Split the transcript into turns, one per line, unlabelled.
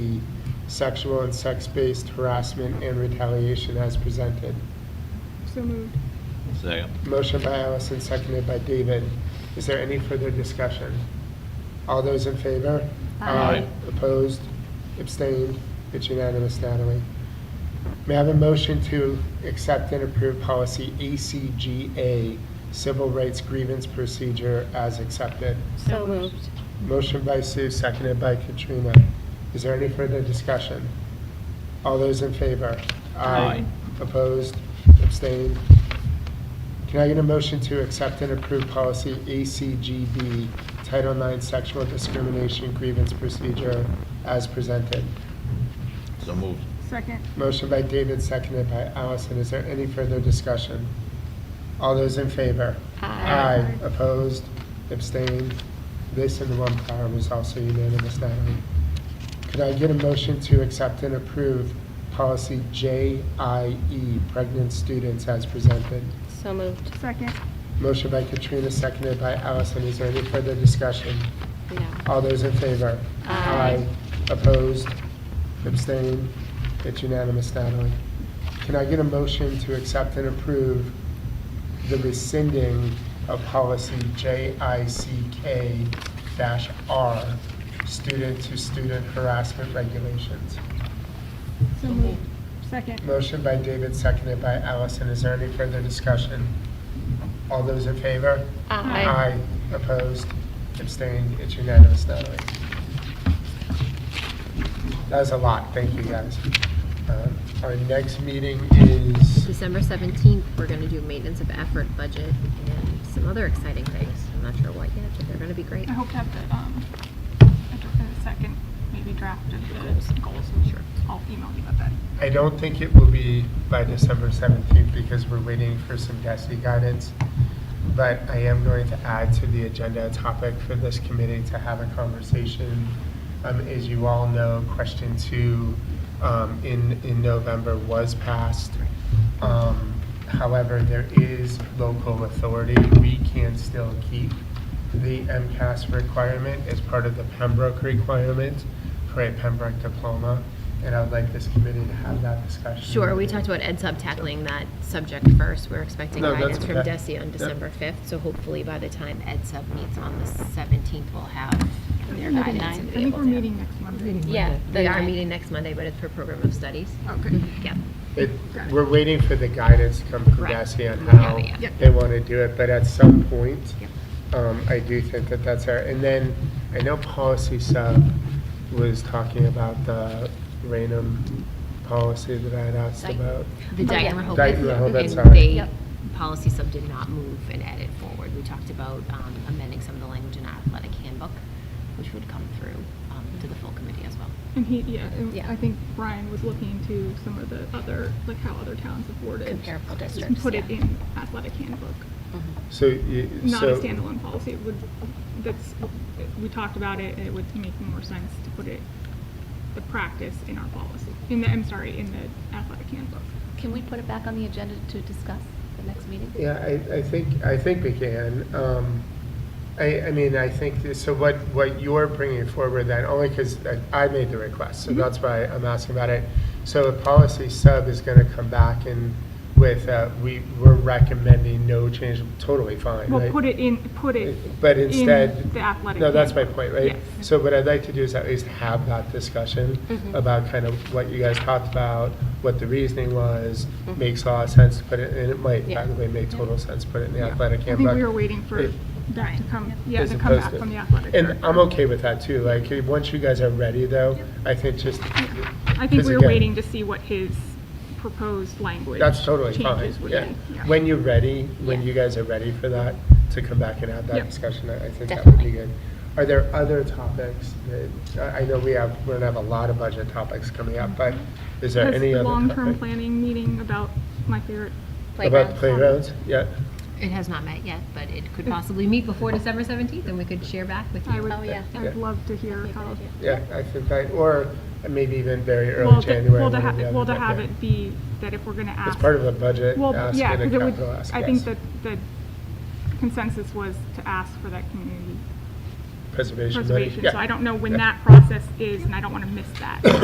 sexual and sex-based harassment and retaliation as presented.
So moved.
Second.
Motion by Allison, seconded by David. Is there any further discussion? All those in favor?
Aye.
Opposed? Abstained? It's unanimous, Natalie. May I have a motion to accept and approve policy ACGA, Civil Rights Grievance Procedure, as accepted?
So moved.
Motion by Sue, seconded by Katrina. Is there any further discussion? All those in favor?
Aye.
Opposed? Abstained? Can I get a motion to accept and approve policy ACGB, Title IX Sexual Discrimination Grievance Procedure as presented?
So moved.
Second.
Motion by David, seconded by Allison. Is there any further discussion? All those in favor?
Aye.
Opposed? Abstained? This and the one prior was also unanimous, Natalie. Could I get a motion to accept and approve policy JIE, pregnant students, as presented?
So moved.
Second.
Motion by Katrina, seconded by Allison. Is there any further discussion?
No.
All those in favor?
Aye.
Opposed? Abstained? It's unanimous, Natalie. Can I get a motion to accept and approve the rescinding of policy JICK-R, student-to-student harassment regulations?
So moved. Second.
Motion by David, seconded by Allison. Is there any further discussion? All those in favor?
Aye.
Opposed? Abstained? It's unanimous, Natalie. That was a lot. Thank you, guys. Um, Our next meeting is,
December 17th, we're going to do maintenance of effort budget and some other exciting things. I'm not sure what yet, but they're going to be great.
I hope to have the, um, I hope to have the second, maybe draft of the goals.
Sure.
I'll email you about that.
I don't think it will be by December 17th because we're waiting for some DESI guidance. But I am going to add to the agenda a topic for this committee to have a conversation. Um, As you all know, question two um, in, in November was passed. Um, However, there is local authority. We can still keep the MCAS requirement as part of the Pembroke requirement for a Pembroke diploma. And I would like this committee to have that discussion.
Sure, we talked about Ed Sub tackling that subject first. We're expecting
No,
guidance
that's
from
okay.
DESI on
Yep.
December 5th, so hopefully by the time Ed Sub meets on the 17th, we'll have their guidance. and
I
be
think
able
we're
to-
meeting next Monday.
Yeah, they are meeting next Monday, but it's for program of studies.
Okay.
Yeah.
It- We're waiting for the guidance to come from
Correct.
DESI on
We have
how
it, yeah.
they want to do it, but at some point, um, I do think that that's our, and then, I know Policy Sub was talking about the Rainham policy that I had asked
Right.
about.
The Dayton Rehoboth.
Dayton Rehoboth,
and
sorry.
they-
Yep.
Policy sub did not move and edit forward. We talked about um, amending some of the language in our athletic handbook, which would come through um, to the full committee as well.
And he, yeah, and
Yeah.
I think Brian was looking into some of the other, like how other towns have worded.
Comparable
just
districts,
Put it
yeah.
in athletic handbook,
So you,
not a
so.
standalone policy. It would, that's, we talked about it, and it would make more sense to put it, the practice in our policy, in the, I'm sorry, in the athletic handbook.
Can we put it back on the agenda to discuss the next meeting?
Yeah, I, I think, I think we can. Um, I, I mean, I think, this- so what, what you're bringing forward then, only because I made the request,
Mm-hmm.
so that's why I'm asking about it. So the policy sub is going to come back and with, uh, we, we're recommending no change, totally fine, right?
Well, put it in, put it.
But instead.
In the athletic.
No, that's my
handbook.
point, right?
Yes. Mm-hmm.
So what I'd like to do is at least have that discussion about kind of what you guys talked about, what the reasoning was,
Mm-hmm.
makes a lot of sense to put it, and it might, by the way, make total sense, to put it in the
Yeah.
athletic
I
handbook.
think we were waiting for
It-
that to come, yeah,
as
to come
opposed
back
to-
from the athletic.
And I'm okay with that too, like, eh, once you guys are ready though, I think just,
I think
Because
we were
again-
waiting to see what his proposed language.
that's totally fine,
changes would
yeah.
be. Yeah.
When you're ready, when you guys are ready for that, to come back and have that
Yep.
discussion, I I think that would be good. Are there other topics that, I I know we have, we're gonna have a lot of budget topics coming up, but is there
Mm-hmm. Has
any
the
other
long-term
topic?
planning meeting about my favorite,
About playgrounds, yeah,
It has not met yet, but it could possibly meet before December 17th, and we could share back with
I
you.
would,
Oh, yeah.
I'd love to hear how.
yeah, I think that, or maybe even very
Well,
early
to-
January.
well, to
one or
ha-
the other,
Well, to
but
have
yeah.
it be that if we're gonna ask.
It's part of the budget,
Well,
ask
yeah,
and a
because it would,
capital ask,
I
yes.
think that the consensus was to ask for that community
Preservation. money,
preservation.
yeah.
So I don't know when
Yeah.
that process is, and I don't want to miss that.